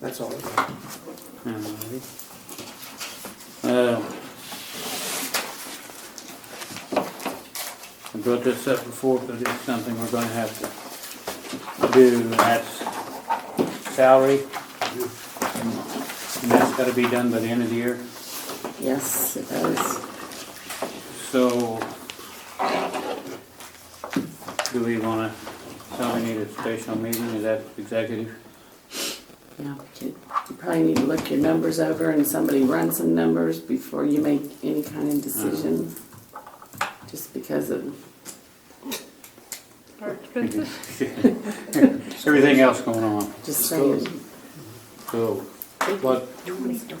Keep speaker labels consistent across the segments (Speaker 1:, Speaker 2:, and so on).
Speaker 1: That's all.
Speaker 2: Um, Alrighty. Uh, I brought this up before, but it's something we're gonna have to do, and that's salary. And that's gotta be done by the end of the year,
Speaker 3: Yes, it does.
Speaker 2: so do we wanna, so we need a special meeting, is that executive?
Speaker 3: Yeah, but you you probably need to look your numbers over and somebody run some numbers before you make any kind of decision. Just because of,
Speaker 4: Are expensive?
Speaker 2: Everything else going on,
Speaker 3: just
Speaker 1: Just
Speaker 3: saying.
Speaker 1: goes.
Speaker 2: so what,
Speaker 1: We're supposed to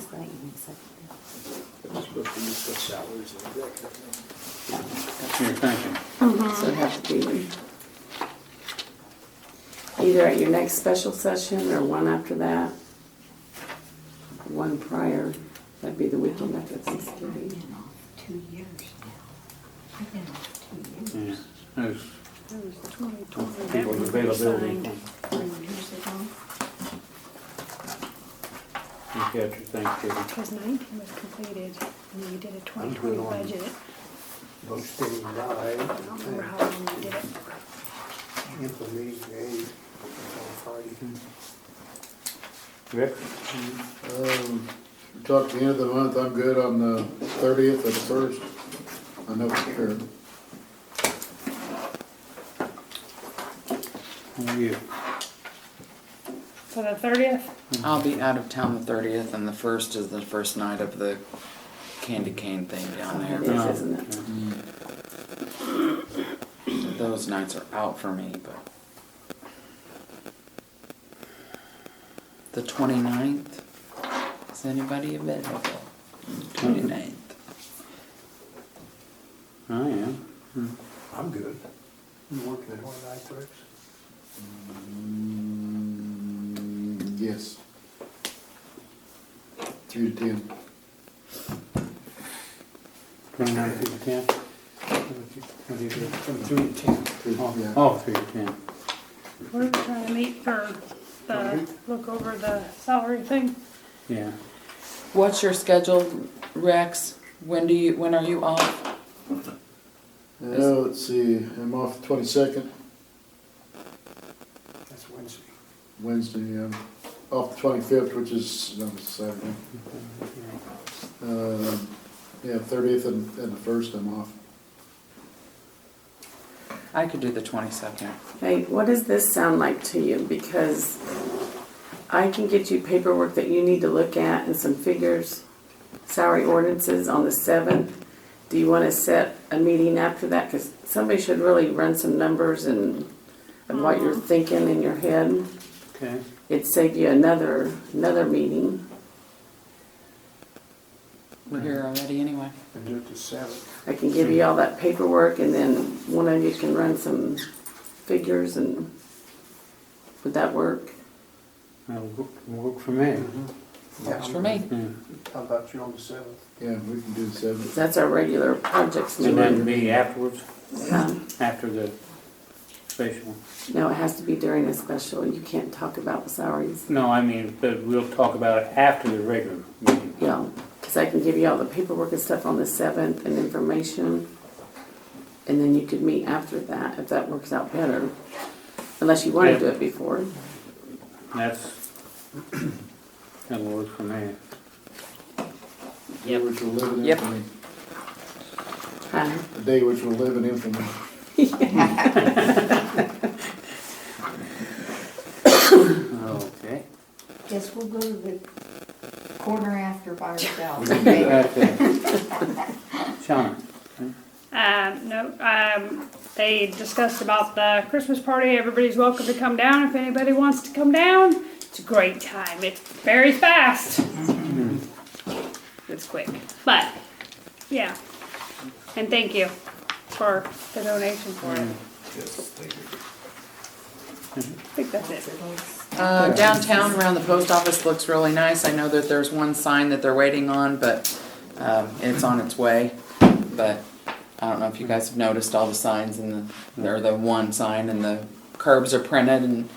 Speaker 1: discuss salaries and executive.
Speaker 2: you're thinking?
Speaker 3: So it'd have to be either at your next special session or one after that. One prior, that'd be the weekend after Thanksgiving.
Speaker 5: Two years now. I've been off two years.
Speaker 2: Yeah, there's
Speaker 4: It was 2020. That
Speaker 2: people's
Speaker 4: was
Speaker 2: availability.
Speaker 4: signed.
Speaker 5: Three years ago.
Speaker 2: You got your Thanksgiving.
Speaker 4: Because nineteen was completed, and we did a
Speaker 1: I'm
Speaker 4: twenty
Speaker 1: doing
Speaker 4: twenty
Speaker 1: on-
Speaker 4: budget.
Speaker 1: Posting
Speaker 4: I don't
Speaker 1: nine,
Speaker 4: remember how long we did it.
Speaker 1: and implementing eight on
Speaker 2: Rick?
Speaker 6: Um, talk to the end of the month, I'm good on the thirtieth or the first. I know for sure.
Speaker 2: How are you?
Speaker 4: So the thirtieth,
Speaker 7: I'll be out of town the thirtieth, and the first is the first night of the candy cane thing down
Speaker 3: It
Speaker 7: there.
Speaker 3: is, isn't it?
Speaker 7: Those nights are out for me, but. The 29th? Is anybody available? Twenty-ninth.
Speaker 2: I am.
Speaker 1: Friday. I'm good. You working at one night, Rex?
Speaker 6: Mm, yes. Two to ten.
Speaker 2: Twenty-nine through the ten? What do you do?
Speaker 1: From three to ten.
Speaker 6: Three-
Speaker 2: Oh,
Speaker 6: yeah.
Speaker 2: oh, through the ten.
Speaker 4: we're trying to meet for the, look over the salary thing.
Speaker 2: Yeah.
Speaker 7: What's your schedule, Rex? When do you, when are you off?
Speaker 6: Uh, let's see, I'm off the twenty-second,
Speaker 1: That's Wednesday.
Speaker 6: Wednesday, um, off the twenty-fifth, which is, um, Saturday.
Speaker 1: Mm-hmm.
Speaker 6: Um, yeah, thirtieth and, and the first, I'm off.
Speaker 7: I could do the twenty-second.
Speaker 3: Hey, what does this sound like to you? Because I can get you paperwork that you need to look at and some figures, salary ordinances on the seventh. Do you want to set a meeting after that? Because somebody should really run some numbers and, and what you're thinking in your head.
Speaker 2: Okay.
Speaker 3: It'd save you another, another meeting.
Speaker 7: We're here already anyway.
Speaker 1: And do it the seventh.
Speaker 3: I can give you all that paperwork and then one of you can run some figures and, would that work?
Speaker 2: That'll wo- work for me.
Speaker 1: Mm-hmm.
Speaker 7: Works for me.
Speaker 2: Yeah.
Speaker 1: How about you on the seventh?
Speaker 6: Yeah, we can do the seventh.
Speaker 3: That's our regular projects
Speaker 2: And then
Speaker 3: meeting.
Speaker 2: be afterwards,
Speaker 3: Um,
Speaker 2: after the special.
Speaker 3: No, it has to be during a special. You can't talk about salaries.
Speaker 2: No, I mean, but we'll talk about it after the regular meeting.
Speaker 3: Yeah, because I can give you all the paperwork and stuff on the seventh and information. And then you could meet after that if that works out better. Unless you want to do it before.
Speaker 2: That's, that'll work for me.
Speaker 6: Day which will live in
Speaker 7: Yep.
Speaker 6: infamy.
Speaker 3: Huh?
Speaker 6: A day which will live in infamy.
Speaker 2: Okay.
Speaker 5: Guess we'll go to the corner after by ourselves.
Speaker 2: Okay. Sean?
Speaker 4: Um, no, um, they discussed about the Christmas party. Everybody's welcome to come down if anybody wants to come down. It's a great time. It's very fast. It's quick, but yeah. And thank you for the donation for it. Mm. Yes, thank you. I think that's it.
Speaker 7: Uh, downtown around the post office looks really nice. I know that there's one sign that they're waiting on, but, um, it's on its way. But I don't know if you guys have noticed all the signs and the, or the one sign and the curbs are printed and